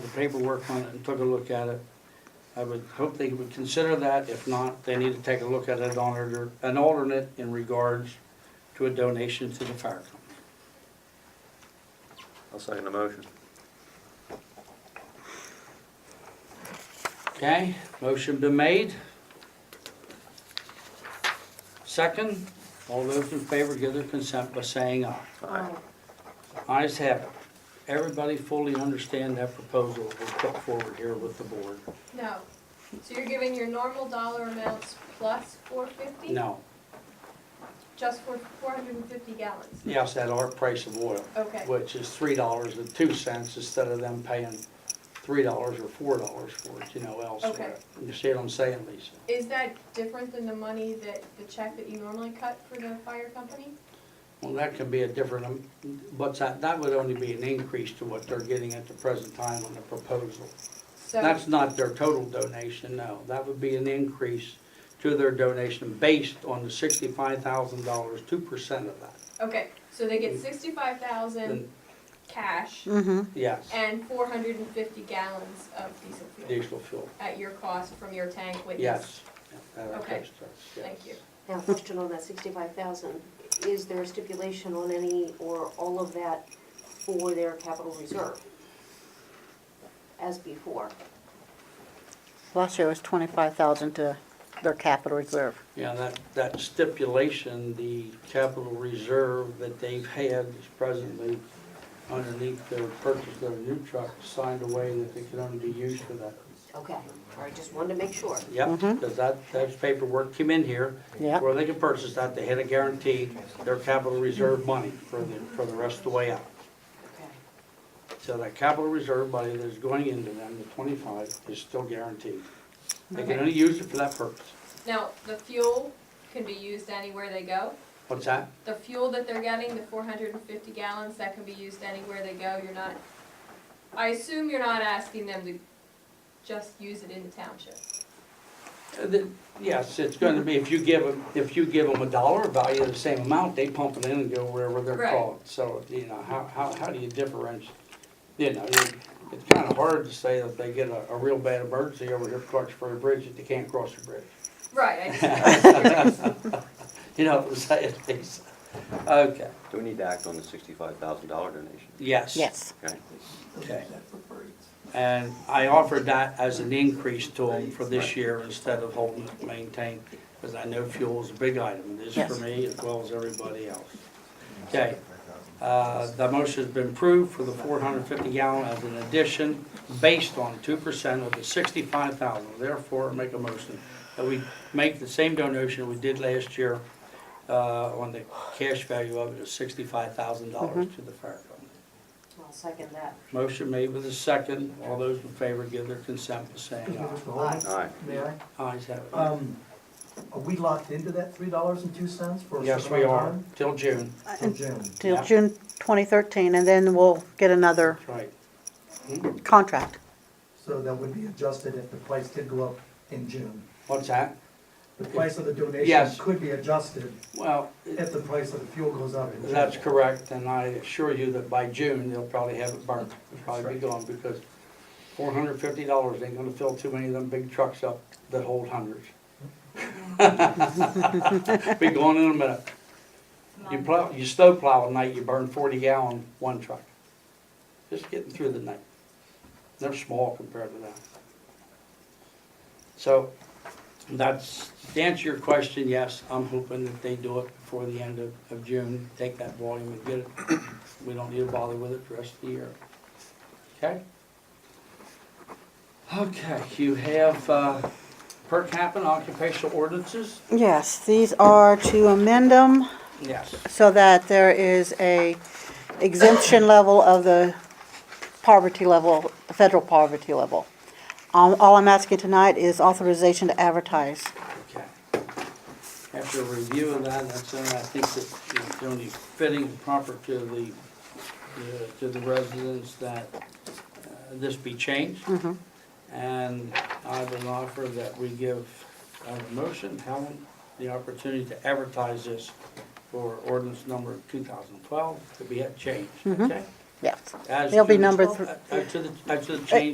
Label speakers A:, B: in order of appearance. A: paperwork on it and took a look at it. I would hope they would consider that. If not, they need to take a look at it on order, an alternate in regards to a donation to the fire company.
B: I'll second the motion.
A: Okay, motion been made. Second, all those in favor give their consent by saying aye.
B: Aye.
A: Eyes have it. Everybody fully understand that proposal was put forward here with the board?
C: No. So you're giving your normal dollar amounts plus four fifty?
A: No.
C: Just for four hundred and fifty gallons?
A: Yes, at our price of oil,
C: Okay,
A: which is three dollars and two cents instead of them paying three dollars or four dollars for it, you know, elsewhere. You see what I'm saying, Lisa?
C: is that different than the money that, the check that you normally cut for the fire company?
A: Well, that could be a different, um, but that, that would only be an increase to what they're getting at the present time on the proposal.
C: So,
A: That's not their total donation, no. That would be an increase to their donation based on the sixty-five thousand dollars, two percent of that.
C: okay, so they get sixty-five thousand
A: Then-
C: cash
A: Yes,
C: and four hundred and fifty gallons of diesel fuel
A: diesel fuel,
C: at your cost from your tank with this?
A: yes. Yeah, that
C: Okay.
A: affects us, yes.
C: Thank you.
D: Now, question on that sixty-five thousand, is there a stipulation on any or all of that for their capital reserve? As before,
E: Last year was twenty-five thousand to their capital reserve.
A: Yeah, that, that stipulation, the capital reserve that they've had is presently underneath their purchase of a new truck, signed away that they can only be used for that.
D: okay, all right, just wanted to make sure.
A: Yep, because that, that paperwork came in here.
E: Yep.
A: Where they could purchase that, they had to guarantee their capital reserve money for the, for the rest of the way out.
D: Okay.
A: So that capital reserve money that's going into them, the twenty-five, is still guaranteed. They can only use it for that purpose.
C: Now, the fuel can be used anywhere they go?
A: What's that?
C: The fuel that they're getting, the four hundred and fifty gallons, that can be used anywhere they go, you're not, I assume you're not asking them to just use it in the township.
A: Uh, the- Yes, it's gonna be, if you give them, if you give them a dollar value of the same amount, they pump it in and go wherever they're
C: Right.
A: called. So, you know, how, how, how do you differentiate? You know, it- it's kinda hard to say that they get a, a real bad emergency over here at Clarksville Bridge that they can't cross the bridge.
C: Right, I just,
A: You know, what I'm saying, Lisa? Okay,
B: Do we need to act on the sixty-five thousand dollar donation?
A: yes.
E: Yes.
B: Okay.
A: Okay. And I offered that as an increase to them for this year instead of holding it maintained, because I know fuel is a big item, it is
E: Yes.
A: for me as well as everybody else. Okay, uh, the motion's been approved for the four hundred fifty gallon as an addition based on two percent of the sixty-five thousand. Therefore, make a motion that we make the same donation we did last year, uh, on the cash value of it of sixty-five thousand dollars to the fire company.
D: I'll second that.
A: Motion made with a second. All those in favor give their consent by saying aye.
B: Aye.
F: May I?
A: Ayes have it.
F: Um, are we locked into that three dollars and two cents for a
A: Yes,
F: certain
A: we are,
F: amount
A: till June.
F: of time? Till June.
E: Till
A: Yeah.
E: June twenty thirteen, and then we'll get another
A: That's right.
E: contract.
F: So that would be adjusted if the price did go up in June.
A: What's that?
F: The price of the
A: Yes.
F: donation could be adjusted
A: Well,
F: if the price of the fuel goes up in June.
A: that's correct, and I assure you that by June, they'll probably have it burnt. It'll probably be gone, because four hundred fifty dollars ain't gonna fill too many of them big trucks up that hold hundreds. Be gone in a minute. You plow, you snow plow at night, you burn forty gallon one truck. Just getting through the night. They're small compared to that. So, that's, to answer your question, yes, I'm hoping that they do it before the end of, of June, take that volume and get it. We don't need to bother with it the rest of the year. Okay? Okay, you have, uh, per capita occupational ordinances?
E: Yes, these are to amend them
A: Yes.
E: so that there is a exemption level of the poverty level, the federal poverty level. Um, all I'm asking tonight is authorization to advertise.
A: Okay. After a review of that, that's, uh, I think that it's only fitting and proper to the, the- to the residents that uh, this be changed.
E: Mm-hmm.
A: And I would offer that we give uh, the motion, Helen, the opportunity to advertise this for ordinance number two thousand twelve to be changed, okay?
E: Yes.
A: As
E: Mm-hmm. It'll be
A: to the-
E: number thr-
A: uh, uh, To the, uh, to the change